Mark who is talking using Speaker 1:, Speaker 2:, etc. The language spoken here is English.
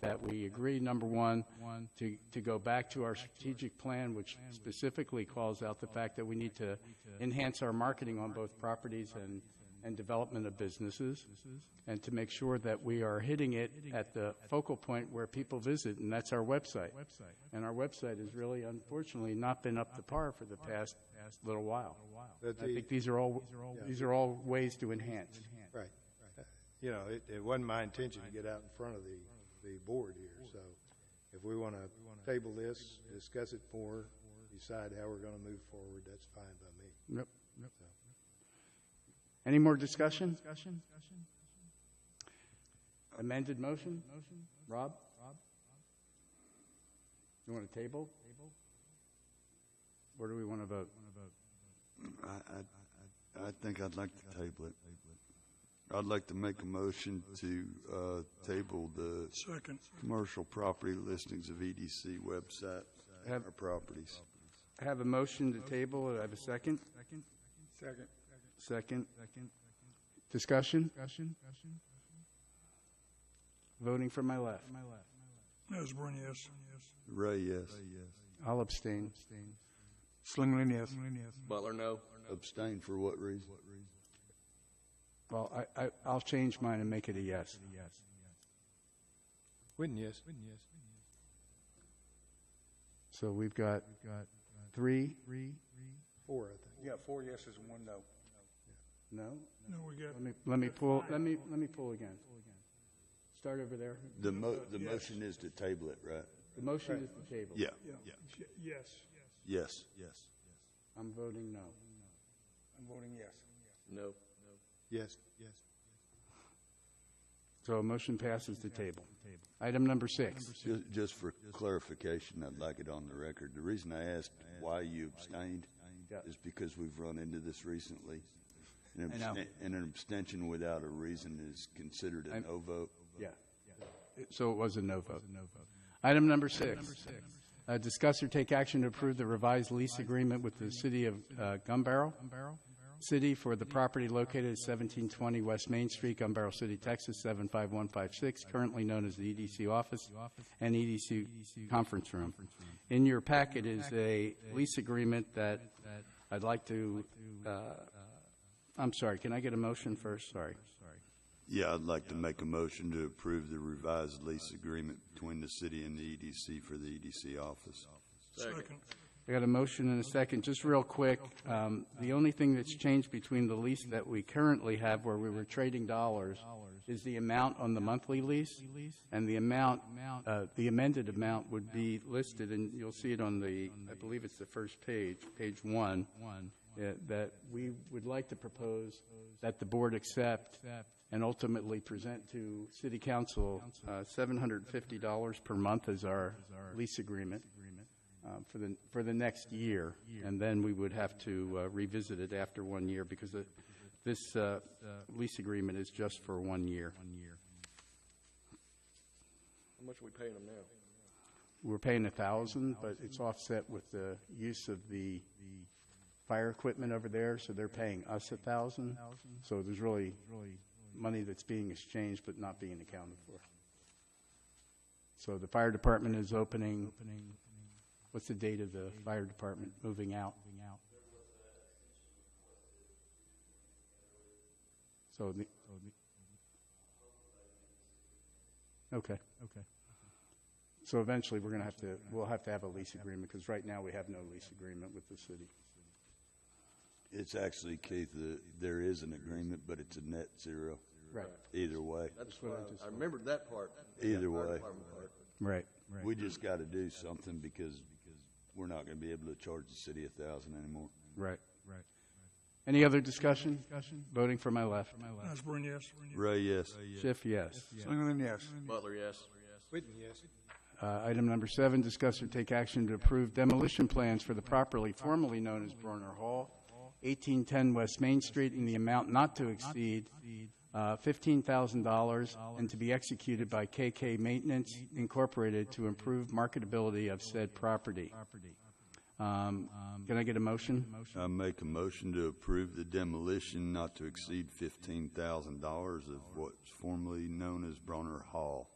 Speaker 1: that we agree, number one, to, to go back to our strategic plan, which specifically calls out the fact that we need to enhance our marketing on both properties and, and development of businesses, and to make sure that we are hitting it at the focal point where people visit, and that's our website. And our website has really unfortunately not been up to par for the past little while.
Speaker 2: That
Speaker 1: I
Speaker 2: the-
Speaker 1: think these are all, these are all ways to enhance.
Speaker 2: Right. Uh, You know, it, it wasn't my intention to get out in front of the, the board here, so if we want to table this, discuss it more, decide how we're going to move forward, that's fine by me.
Speaker 1: Yep. Any more discussion? Amended motion? Rob? You want a table? Where do we want to vote?
Speaker 3: I, I, I think I'd like to table it. I'd like to make a motion to uh, table the
Speaker 4: Second.
Speaker 3: commercial property listings of EDC website and our properties.
Speaker 1: I have a motion to table, I have a second?
Speaker 4: Second.
Speaker 1: Second. Discussion? Voting from my left.
Speaker 4: Osborne, yes.
Speaker 3: Ray, yes.
Speaker 1: I'll abstain.
Speaker 4: Slinglin, yes.
Speaker 5: Butler, no.
Speaker 3: Abstain for what reason?
Speaker 1: Well, I, I, I'll change mine and make it a yes.
Speaker 2: Witten, yes.
Speaker 1: So we've got three,
Speaker 2: Four, I think.
Speaker 6: Yeah, four yeses and one no.
Speaker 1: no?
Speaker 4: No, we got,
Speaker 1: Let me, let me pull, let me, let me pull again. Start over there.
Speaker 3: The mo, the motion is to table it, right?
Speaker 1: The motion is the table.
Speaker 3: Yeah,
Speaker 4: yeah. Y- Yes.
Speaker 3: yes. Yes.
Speaker 1: I'm voting no.
Speaker 6: I'm voting yes.
Speaker 5: No.
Speaker 2: Yes. Yes.
Speaker 1: So a motion passes the table. Item number six.
Speaker 3: Ju- Just for clarification, I'd like it on the record. The reason I asked why you abstained
Speaker 1: Yeah.
Speaker 3: is because we've run into this recently. An
Speaker 1: I know.
Speaker 3: abstain- And an abstention without a reason is considered a
Speaker 1: I'm-
Speaker 3: no vote.
Speaker 1: Yeah. So it was a no vote. Item number six. Uh, Discuss or take action to approve the revised lease agreement with the city of uh, Gun Barrel City for the property located at 1720 West Main Street, Gun Barrel City, Texas, 75156, currently known as the EDC office and EDC conference room. In your packet is a lease agreement that I'd like to, uh, I'm sorry, can I get a motion first? Sorry.
Speaker 3: Yeah, I'd like to make a motion to approve the revised lease agreement between the city and the EDC for the EDC office.
Speaker 4: Second.
Speaker 1: I got a motion and a second. Just real quick, um, the only thing that's changed between the lease that we currently have where we were trading dollars is the amount on the monthly lease, and the amount, uh, the amended amount would be listed, and you'll see it on the, I believe it's the first page, page one, uh, that we would like to propose that the board accept and ultimately present to city council uh, $750 per month as our lease agreement um, for the, for the next year. And then we would have to uh, revisit it after one year because the- this uh, lease agreement is just for one year.
Speaker 5: How much are we paying them now?
Speaker 1: We're paying a 1000 but it's offset with the use of the fire equipment over there, so they're paying us a 1000 So there's really money that's being exchanged but not being accounted for. So the fire department is opening, what's the date of the fire department moving out? So the, okay. Okay. So eventually, we're going to have to, we'll have to have a lease agreement, because right now, we have no lease agreement with the city.
Speaker 3: It's actually, Keith, the- there is an agreement, but it's a net zero.
Speaker 1: Right.
Speaker 3: Either way,
Speaker 5: That's what I, I remembered that part.
Speaker 3: Either
Speaker 5: Yeah, fire
Speaker 3: way.
Speaker 5: department part.
Speaker 1: Right.
Speaker 3: we just got to do something because we're not going to be able to charge the city a thousand anymore.
Speaker 1: Right. Right. Any other discussion? Voting for my left.
Speaker 4: Osborne, yes.
Speaker 3: Ray, yes.
Speaker 1: Schiff, yes.
Speaker 4: Slinglin, yes.
Speaker 5: Butler, yes.
Speaker 2: Witten, yes.
Speaker 1: Uh, Item number seven, discuss or take action to approve demolition plans for the property formerly known as Bronner Hall, 1810 West Main Street, in the amount not to exceed uh, $15,000 and to be executed by KK Maintenance Incorporated to improve marketability of said property. Um, Can I get a motion?
Speaker 3: I make a motion to approve the demolition not to exceed fifteen thousand dollars of what's formerly known as Bronner Hall.